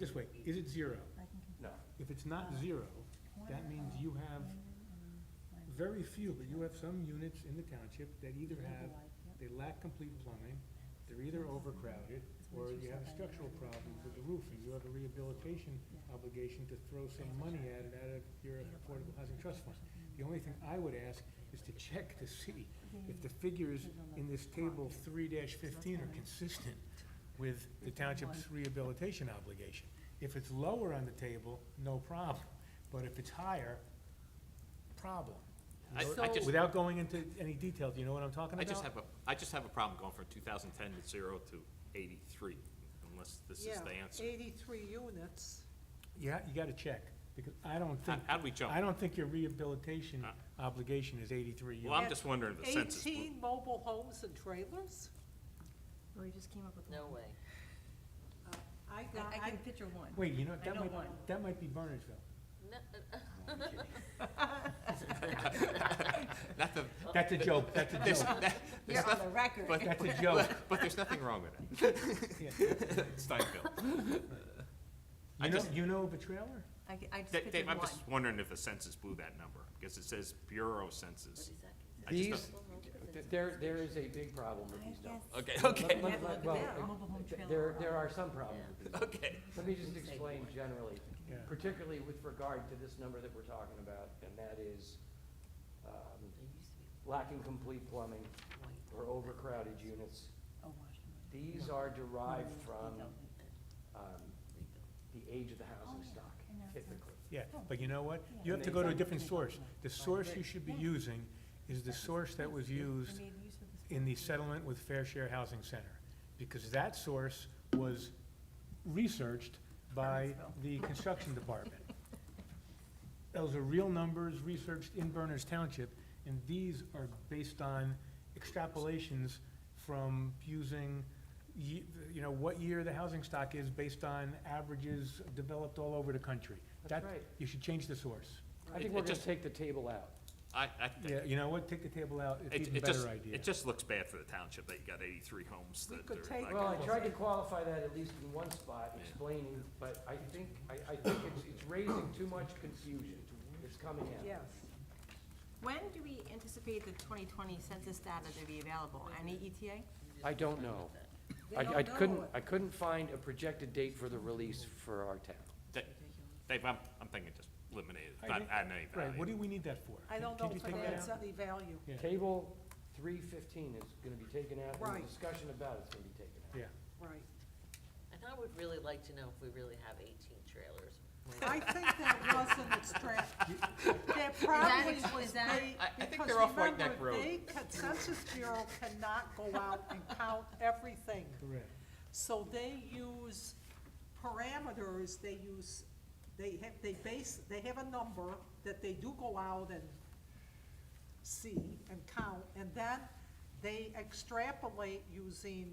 this way, is it zero? No, If it's not zero, that means you have very few, but you have some units in the township that either have, they lack complete plumbing, they're either overcrowded, or you have a structural problem with the roof, and you have a rehabilitation obligation to throw some money at it out of your affordable housing trust fund. The only thing I would ask is to check to see if the figures in this table three fifteen are consistent with the township's rehabilitation obligation. If it's lower on the table, no problem, but if it's higher, problem. I- Without- I just- Without going into any detail, do you know what I'm talking I about? just have a, I just have a problem going from two thousand ten to zero to eighty-three, unless this is the answer. Yeah, eighty-three units. Yeah, you gotta check, because I don't How, think, how do we jump? I don't think your rehabilitation Uh. obligation is eighty-three Well, I'm units. just wondering if the census. would- Eighteen mobile homes and trailers? Well, Oh, you just came up with No one. way. Uh, I I, got, I I, can picture one. Wait, you know, that know might, one. that might be Burnersville. No, I'm kidding. Not the, That's a joke, that's a there's, joke, that- there's You're on nothing, the record. but, that's a joke. but there's nothing wrong with it. Yeah. Steinfeld. I You know, just- you know of a trailer? I, I just Dave, pictured I'm one. just wondering if the census blew that number, because it says Bureau Census. I just These, th- there, there is a big problem with these numbers. guess- Okay, Let- okay, let- Yeah, let- look well, at that. Mobile home th- trailer There, park. there are some problems with these. numbers. okay. Let me just explain generally, Yeah. particularly with regard to this number that we're talking about, and that is, um, lacking complete plumbing or overcrowded units. Oh, These are derived from, um, the age of the housing stock typically. Yeah, but you know what? You have to go to a different source. The source you should be using is the source that was used in the settlement with Fair Share Housing Center, because that source was researched by the construction department. Those are real numbers researched in Berners Township, and these are based on extrapolations from using, ye- you know, what year the housing stock is based on averages developed all over the country. That's That- right. You should change the source. I It- think it we're gonna just- take the table out. I, I think, Yeah, you know what? Take the table out. It's it, even it just, better idea. it just looks bad for the township that you got eighty-three homes We that could are take like. Well, I tried to qualify that at least in one spot, explaining, but I think, I, I think it's, it's raising too much confusion. It's coming out. yes. When do we anticipate the 2020 census data to be available? Any E ETA? I don't know. They I, don't I know couldn't, it. I couldn't find a projected date for the release for our town. Da- Dave, I'm, I'm thinking just eliminate it, I not think- add any Right, what do value. we need that for? I don't Can know you if it take that adds out? any value. Yeah. Table three fifteen is gonna be taken out, and Right. the discussion about it's gonna be taken out. Yeah, Right. And I would really like to know if we really have eighteen trailers. I think that was an extra, that probably ex- was is that- they, I- I think because they're off White remember, Neck Road. they, Census Bureau cannot go out and count everything. correct. So they use parameters, they use, they have, they base, they have a number that they do go out and see and count, and then they extrapolate using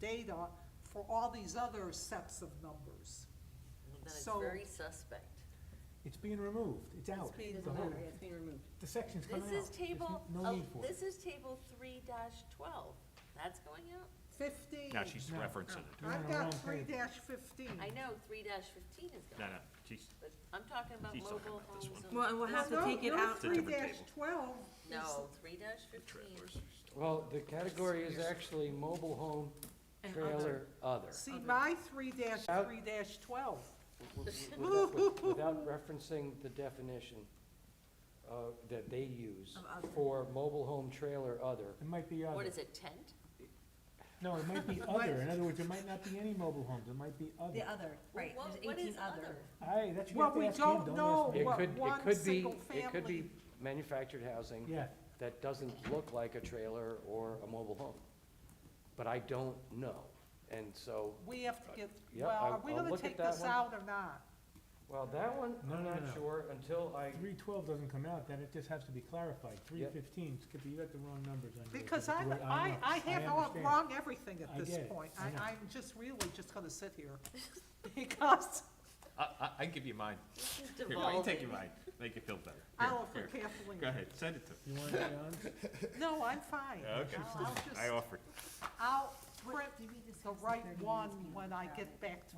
data for all these other sets of numbers. Then it's So- very suspect. It's being removed. It's out. being The whole- The section's coming out. This is There's n- table, No el- need for it. this is table three dash twelve. That's going out? Fifteen, No, she's No. referencing it. You're on I've the wrong got three page. dash fifteen. I know three dash fifteen is No, going, no, she's, but I'm talking about He's talking mobile about this homes one. and. Well, and we'll have to take it out. a No, three different dash table. twelve is. No, three dash fifteen. Well, the category is actually mobile home And other. trailer other. See, my three dash, Out. three dash twelve. Without with- without referencing the definition uh, that they use Of other. for mobile home trailer other. It might be other. What is it, tent? No, it might be other. In other words, there might not be any mobile homes. It might be The other. other, right, What- there's what is 18 other. Aye, that's Well, what you we have to don't ask him, know don't ask It me. What, could, it one could be, single it could be family? manufactured housing. Yeah, That doesn't look like a trailer or a mobile home. But I don't know. And so, We have to get, Yeah, well, I'll- are we I'll gonna look at take that this one. out or not? well, that one, No, I'm no, not no. sure until I, three twelve doesn't come out, then it just has to be clarified. Three fifteen, Skippy, you got the wrong numbers on yours. Because It's the I'm, way I, know. I have all understand. wrong everything at I this get it. point. I know. I, I'm just really just gonna sit here. Because I, I, I can give you mine. This is Here, why don't you take devolving. your mine, make you feel better. I'll offer Here, here. Kathleen. Go ahead, send it to You want it, John? No, I'm fine. me. Okay, I'll I'll I just, offer. I'll print Did we discuss the the 30 right minutes one being when I crowded? get back to